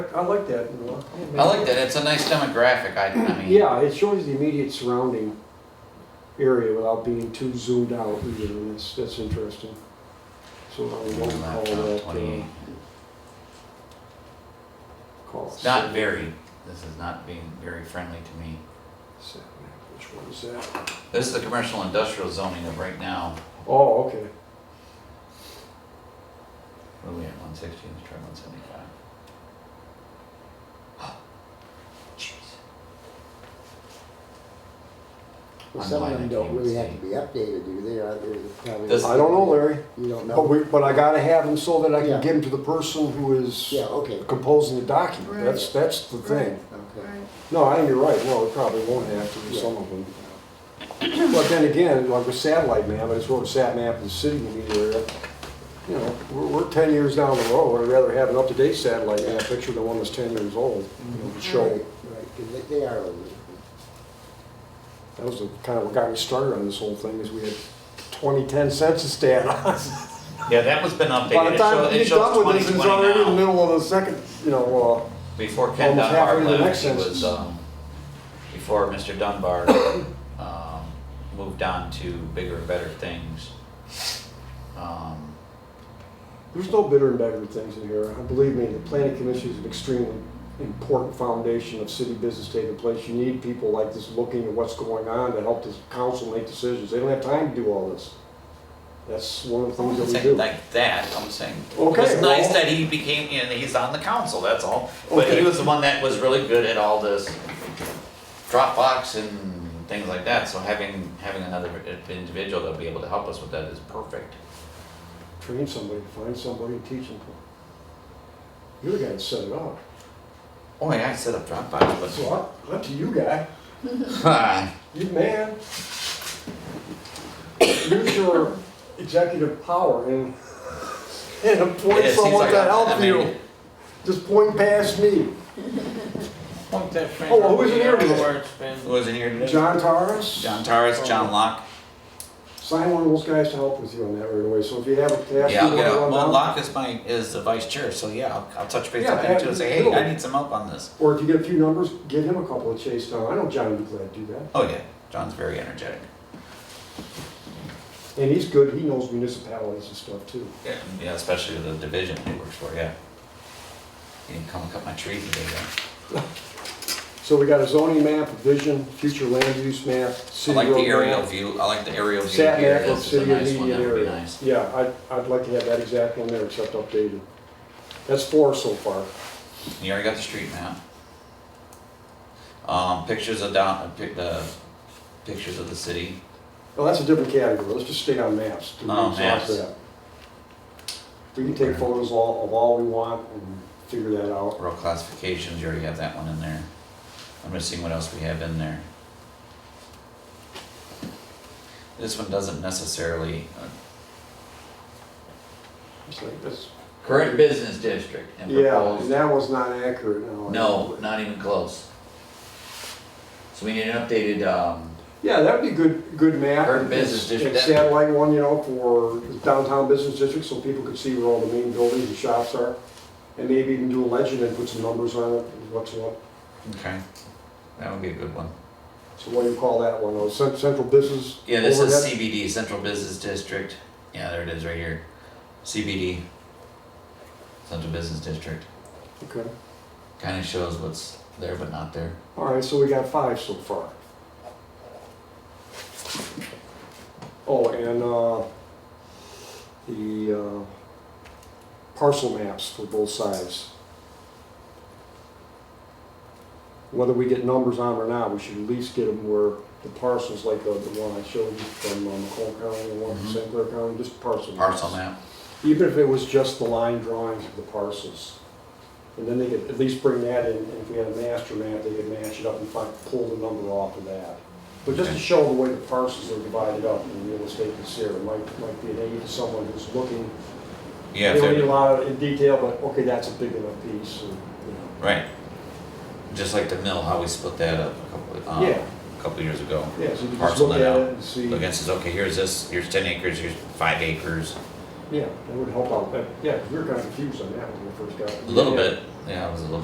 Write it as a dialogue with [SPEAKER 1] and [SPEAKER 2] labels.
[SPEAKER 1] I like that, you know.
[SPEAKER 2] I like that, it's a nice demographic, I, I mean.
[SPEAKER 3] Yeah, it shows the immediate surrounding area without being too zoomed out, you know, and that's, that's interesting. So I
[SPEAKER 2] I'm
[SPEAKER 3] won't
[SPEAKER 2] not
[SPEAKER 3] call
[SPEAKER 2] top
[SPEAKER 3] that,
[SPEAKER 2] 28.
[SPEAKER 3] uh, call it.
[SPEAKER 2] It's not very, this is not being very friendly to me.
[SPEAKER 3] Sat map, Which one is that?
[SPEAKER 2] This is the commercial industrial zoning of right now,
[SPEAKER 3] Oh, okay.
[SPEAKER 2] what are we at, one sixty, let's try one seventy-five. Jeez.
[SPEAKER 4] Well, some of them don't really have to be updated, do they? Are they probably-
[SPEAKER 2] Does-
[SPEAKER 3] I don't know, Larry, Oh,
[SPEAKER 4] You don't
[SPEAKER 3] but
[SPEAKER 4] know?
[SPEAKER 3] we, but I gotta have them so that I
[SPEAKER 4] Yeah.
[SPEAKER 3] can give them to the person who is
[SPEAKER 4] Yeah, okay.
[SPEAKER 3] composing the document. That's,
[SPEAKER 4] Right.
[SPEAKER 3] that's the thing.
[SPEAKER 4] Okay.
[SPEAKER 3] No, I think you're right, no, we probably won't have to, do some of them. But then again, like with satellite map, I just wrote a sat map of the city in the area. You know, we're, we're ten years down the road, I'd rather have an up-to-date satellite map picture than one that's ten years old. you know, to
[SPEAKER 4] Right,
[SPEAKER 3] Show,
[SPEAKER 4] right, 'cause they- they are older.
[SPEAKER 3] that was the kind of what got me started on this whole thing, is we had 2010 census data.
[SPEAKER 2] Yeah, that one's been
[SPEAKER 3] By
[SPEAKER 2] updated,
[SPEAKER 3] the
[SPEAKER 2] it
[SPEAKER 3] time
[SPEAKER 2] shows,
[SPEAKER 3] you're
[SPEAKER 2] it
[SPEAKER 3] done
[SPEAKER 2] shows
[SPEAKER 3] with
[SPEAKER 2] twenty
[SPEAKER 3] this, it's
[SPEAKER 2] twenty
[SPEAKER 3] already in the
[SPEAKER 2] now.
[SPEAKER 3] middle of the second, you know, uh,
[SPEAKER 2] Before Ken
[SPEAKER 3] almost halfway
[SPEAKER 2] Dunbar
[SPEAKER 3] to the next
[SPEAKER 2] left, he
[SPEAKER 3] sentence.
[SPEAKER 2] was, um, before Mr. Dunbar, um, moved on to bigger and better things. Um,
[SPEAKER 3] uh, there's no bitter and better things in here. Believe me, the planning commission is an extremely important foundation of city business taking place. You need people like this looking at what's going on to help this council make decisions. They don't have time to do all this. That's one of the
[SPEAKER 2] I
[SPEAKER 3] things that
[SPEAKER 2] wasn't
[SPEAKER 3] we
[SPEAKER 2] saying
[SPEAKER 3] do.
[SPEAKER 2] like that, I'm saying,
[SPEAKER 3] Okay,
[SPEAKER 2] it's nice
[SPEAKER 3] well-
[SPEAKER 2] that he became, you know, he's on the council, that's all. But he
[SPEAKER 3] Okay.
[SPEAKER 2] was the one that was really good at all this Dropbox and things like that, so having, having another individual that'll be able to help us with that is perfect.
[SPEAKER 3] Train somebody, find somebody, teach them. You're the guy that set it up.
[SPEAKER 2] Oh, yeah, I set up Dropbox, but.
[SPEAKER 3] So up- up to you, guy. You man. Use your executive power and, and appoint
[SPEAKER 2] Yeah, it seems
[SPEAKER 3] someone
[SPEAKER 2] like
[SPEAKER 3] to
[SPEAKER 2] I-
[SPEAKER 3] help
[SPEAKER 2] I
[SPEAKER 3] you.
[SPEAKER 2] mean-
[SPEAKER 3] Just point past me.
[SPEAKER 5] Point that finger.
[SPEAKER 3] Oh, well, who's in here
[SPEAKER 5] the
[SPEAKER 3] today?
[SPEAKER 5] words, man.
[SPEAKER 2] Who was in here today?
[SPEAKER 3] John Torres,
[SPEAKER 2] John Torres, John Locke.
[SPEAKER 3] sign one of those guys to help with you on that right away. So if you have a task,
[SPEAKER 2] Yeah, I'll
[SPEAKER 3] you
[SPEAKER 2] get
[SPEAKER 3] want to
[SPEAKER 2] out.
[SPEAKER 3] run
[SPEAKER 2] Well,
[SPEAKER 3] down.
[SPEAKER 2] Locke is my, is the vice chair, so yeah, I'll, I'll touch base
[SPEAKER 3] Yeah,
[SPEAKER 2] with him too
[SPEAKER 3] have-
[SPEAKER 2] and say, hey,
[SPEAKER 3] cool.
[SPEAKER 2] I need some help on this.
[SPEAKER 3] Or if you get a few numbers, give him a couple of chase down. I know John would be glad to do that.
[SPEAKER 2] Oh, yeah, John's very energetic.
[SPEAKER 3] And he's good. He knows municipalities and stuff too.
[SPEAKER 2] Yeah, yeah, especially the division he works for, yeah. He didn't come and cut my tree today, though.
[SPEAKER 3] So we got a zoning map, a vision, future land use map,
[SPEAKER 2] I
[SPEAKER 3] city
[SPEAKER 2] like the
[SPEAKER 3] road
[SPEAKER 2] aerial
[SPEAKER 3] map.
[SPEAKER 2] view, I like the aerial view
[SPEAKER 3] Sat
[SPEAKER 2] here,
[SPEAKER 3] map of
[SPEAKER 2] this is a
[SPEAKER 3] city
[SPEAKER 2] nice one,
[SPEAKER 3] immediate
[SPEAKER 2] that would be
[SPEAKER 3] area.
[SPEAKER 2] nice.
[SPEAKER 3] Yeah, I'd, I'd like to have that exact one there except updated. That's four so far.
[SPEAKER 2] You already got the street map. Um, pictures of down, uh, pic- the, pictures of the city.
[SPEAKER 3] Well, that's a different category. Let's just stay on maps. Do we
[SPEAKER 2] Oh,
[SPEAKER 3] exhaust
[SPEAKER 2] maps.
[SPEAKER 3] that? We can take photos all- of all we want and figure that out.
[SPEAKER 2] Rural classifications, you already have that one in there. I'm just seeing what else we have in there. This one doesn't necessarily, uh,
[SPEAKER 3] It's like this-
[SPEAKER 2] current business district and
[SPEAKER 3] Yeah,
[SPEAKER 2] proposed
[SPEAKER 3] and that was not accurate, no.
[SPEAKER 2] No, not even close. So we need an updated, um,
[SPEAKER 3] Yeah, that'd be good, good map.
[SPEAKER 2] Urban business
[SPEAKER 3] And
[SPEAKER 2] district, that-
[SPEAKER 3] Satellite one, you know, for downtown business district, so people could see where all the main buildings and shops are. And maybe even do a legend and put some numbers on it, what's what.
[SPEAKER 2] okay, that would be a good one.
[SPEAKER 3] So what do you call that one? Oh, cen- central business?
[SPEAKER 2] Yeah, this is
[SPEAKER 3] overhead?
[SPEAKER 2] CBD, Central Business District. Yeah, there it is right here. CBD, Central Business District.
[SPEAKER 3] Okay,
[SPEAKER 2] Kind of shows what's there but not there.
[SPEAKER 3] all right, so we got five so far. Oh, and, uh, the, uh, parcel maps for both sides. Whether we get numbers on or not, we should at least get them where the parcels, like uh, the one I showed you from uh, Macomb County, the one from
[SPEAKER 2] Mhm.
[SPEAKER 3] St. Clair County, just parcel maps.
[SPEAKER 2] Parcel map.
[SPEAKER 3] even if it was just the line drawings of the parcels. And then they could at least bring that in, and if we had a master map, they could match it up and find, pull the number off of that. But just to show the way the parcels are divided up in real estate consider, it might, might be an aid to someone who's looking.
[SPEAKER 2] Yeah,
[SPEAKER 3] They
[SPEAKER 2] if
[SPEAKER 3] don't need a
[SPEAKER 2] they're-
[SPEAKER 3] lot in detail, but okay, that's a big enough piece, and, you
[SPEAKER 2] right. Just like the mill, how we split that up a couple, um,
[SPEAKER 3] Yeah.
[SPEAKER 2] a couple years ago.
[SPEAKER 3] know. Yeah, so you can just
[SPEAKER 2] Parcel
[SPEAKER 3] look
[SPEAKER 2] that
[SPEAKER 3] at it
[SPEAKER 2] out.
[SPEAKER 3] and see,
[SPEAKER 2] Look and says, okay, here's this, here's ten acres, here's five acres,
[SPEAKER 3] yeah, that would help out, But, yeah, we were kind of confused on that when we first got it.
[SPEAKER 2] a little bit. Yeah, it was a little